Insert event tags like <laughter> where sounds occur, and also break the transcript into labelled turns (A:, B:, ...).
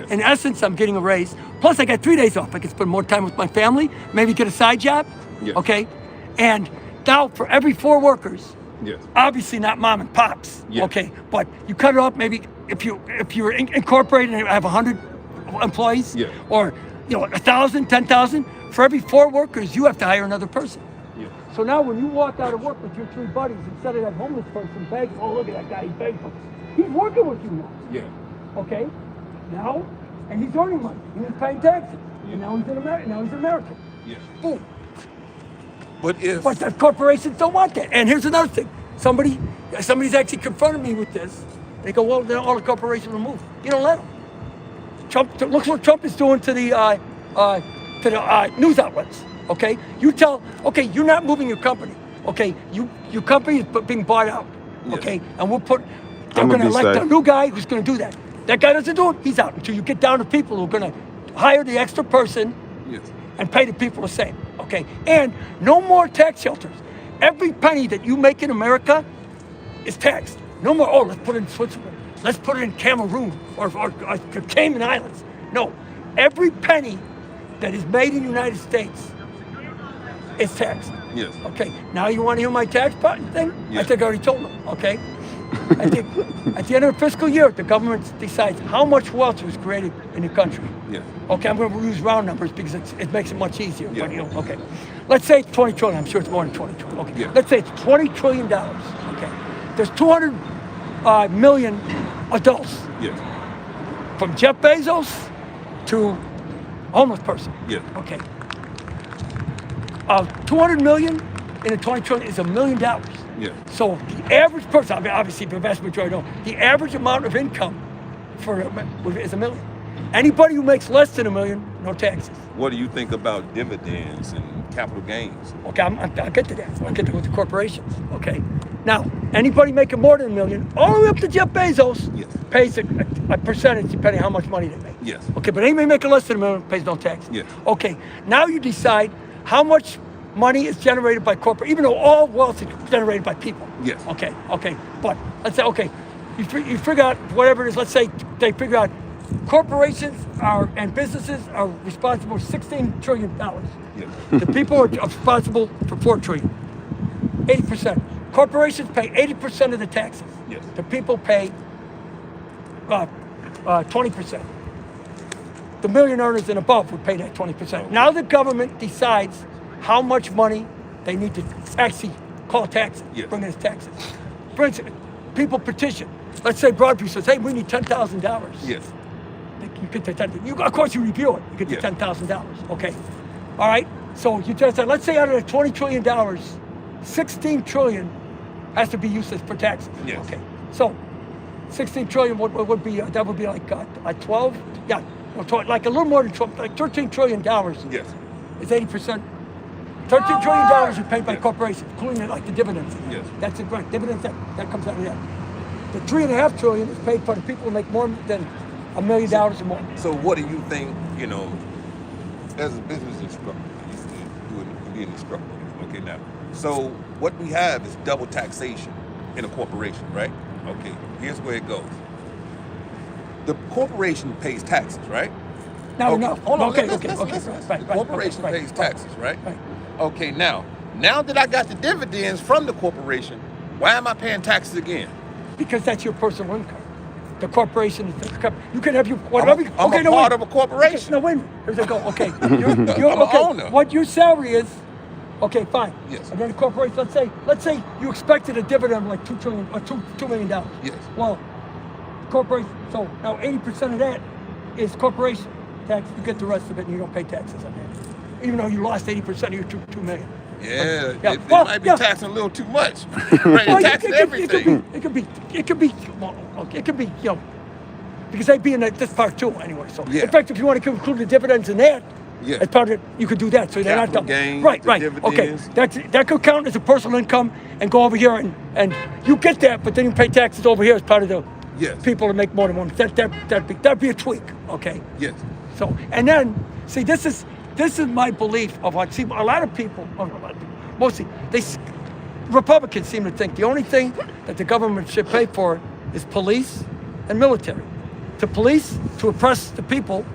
A: In essence, I'm getting a raise. Plus, I got three days off. I can spend more time with my family, maybe get a side job.
B: Yeah.
A: Okay. And now, for every four workers,
B: Yes.
A: obviously not mom and pops.
B: Yeah.
A: Okay. But you cut it off maybe if you if you're in, incorporated and have hundred employees,
B: Yeah.
A: or you know a thousand, ten thousand. For every four workers, you have to hire another person.
B: Yeah.
A: So now when you walk out of work with your three buddies, instead of that homeless person begging, oh look at that guy, he begged us. He's working with you now
B: Yeah.
A: okay? Now, and he's earning money, and he's paying taxes, and now he's an American. Now he's an American.
B: Yeah.
A: Boom.
B: But if
A: But the corporations don't want that. And here's another thing: somebody, somebody's actually confronted me with this. They go, "Well, then all the corporations will move. You don't let them." Trump look what Trump is doing to the uh, uh, to the uh, news outlets. Okay, you tell okay you're not moving your company. Okay, you your company is bu- being bought out.
B: Yes.
A: Okay, and we'll put they're
C: I'm
A: going
C: gonna
A: to
C: be
A: elect
C: safe.
A: a new guy who's going to do that. That guy doesn't do it. He's out until you get down to people who are going to hire the extra person
B: yes.
A: and pay the people the same. Okay, and no more tax shelters. Every penny that you make in America is taxed. No more. Oh, let's put it in Switzerland. Let's put it in Cameroon or, or, or the Cayman Islands. No, every penny that is made in the United States is taxed.
B: Yes.
A: Okay, now you want to hear my tax button thing?
B: Yeah.
A: I think I already told them. Okay. I think at the end of the fiscal year, the government decides how much wealth was created in the country.
B: Yes.
A: Okay, I'm going to use round numbers because it's, it makes it much easier.
B: Yeah.
A: But, you know, okay, let's say it's 20 trillion. I'm sure it's more than 20 trillion. Okay,
B: Yeah.
A: let's say it's 20 trillion dollars. Okay, there's 200 uh, million adults
B: Yes.
A: from Jeff Bezos to homeless person.
B: Yes.
A: Okay. Uh, 200 million in a 20 trillion is a million dollars.
B: Yes.
A: So the average person, I mean, obviously the vast majority don't, the average amount of income for a- is a million. Anybody who makes less than a million, no taxes.
B: What do you think about dividends and capital gains?
A: Okay, I'm, I'm, I'll get to that. I'll get to with the corporations. Okay. Now, anybody making more than a million, all the way up to Jeff Bezos,
B: Yes.
A: pays a, a, a percentage depending on how much money they make.
B: Yes.
A: Okay, but anybody making less than a million pays no tax.
B: Yes.
A: Okay, now you decide how much money is generated by corporate, even though all wealth is generated by people.
B: Yes.
A: Okay, okay, but let's say, okay, you, fi- you figure out whatever it is, let's say they figure out corporations are and businesses are responsible for $16 trillion.
B: Yes.
A: The people are responsible for four trillion. Eighty percent. Corporations pay eighty percent of the taxes.
B: Yes.
A: The people pay uh, twenty percent. The million earners and above would pay that twenty percent. Now the government decides how much money they need to actually call taxes,
B: Yes.
A: bring in as taxes. For instance, people petition. Let's say Broadview says, "Hey, we need ten thousand dollars."
B: Yes.
A: Like, you get the ten. You, of course, you review it. You get the
B: Yeah.
A: ten thousand dollars. Okay, all right. So you just said, let's say out of the twenty trillion dollars, sixteen trillion has to be useless for taxes.
B: Yes.
A: Okay. So sixteen trillion would, would would be uh, that would be like uh, uh, twelve. Yeah. Or 12, like a little more than twelve, like thirteen trillion dollars.
B: Yes.
A: It's eighty percent. Thirteen trillion dollars is paid by corporations, including like the dividends.
B: Yes.
A: That's a grant. Dividends that, that comes out of that. The three and a half trillion is paid by the people who make more than a million dollars or more.
B: So what do you think, you know, as a business instructor, you used to do it- be an instructor, okay now. So what we have is double taxation in a corporation, right? Okay, here's where it goes. The corporation pays taxes, right?
A: Now,
B: okay.
A: no.
B: Oh, Hold on,
A: Okay,
B: let's-
A: okay,
B: let's-
A: okay.
B: let's-
A: right,
B: let's-
A: right,
B: the
A: right,
B: corporation
A: okay, right,
B: pays
A: right.
B: taxes, right?
A: right.
B: Okay, now, now that I got the dividends from the corporation, why am I paying taxes again?
A: Because that's your personal income. The corporation is the company. You can have your whatever.
B: I'm
A: you-
B: a- I'm
A: okay,
B: a
A: no,
B: part
A: wait.
B: of a corporation.
A: No, wait. a minute. Here's a go. Okay,
B: <laughs>
A: you're, you're,
B: I'm a
A: okay.
B: owner.
A: What your salary is. Okay, fine.
B: Yes.
A: And then the corporation. Let's say, let's say you expected a dividend of like two trillion or two two million dollars.
B: Yes.
A: Well, corporation. So now eighty percent of that is corporation tax. You get the rest of it, and you don't pay taxes on that, even though you lost eighty percent of your two two million.
B: Yeah,
A: Yeah.
B: They, they
A: Well,
B: might be
A: yeah.
B: taxing a little
A: <laughs>
B: too much. right,
A: Well,
B: they're
A: it-
B: taxing
A: it, could-
B: everything.
A: It could be. It could be. It could be. Well, okay, it could be. You know, because they'd be in that- this part too anyway. So
B: Yeah.
A: in fact, if you want to include the dividends in that,
B: Yeah.
A: as part of it, you could do that. So they're not
B: Capital
A: double.
B: gains,
A: right.
B: the
A: Right.
B: dividends.
A: Okay. That's that could count as a personal income and go over here and and you get that, but then you pay taxes over here as part of the
B: Yes.
A: people that make more than one. That that that'd be that'd be a tweak. Okay.
B: Yes.
A: So, and then, see, this is this is my belief of what. See, a lot of people, oh, a lot of people, mostly they, s- Republicans seem to think the only thing that the government should pay for is police and military. to police, to oppress the people,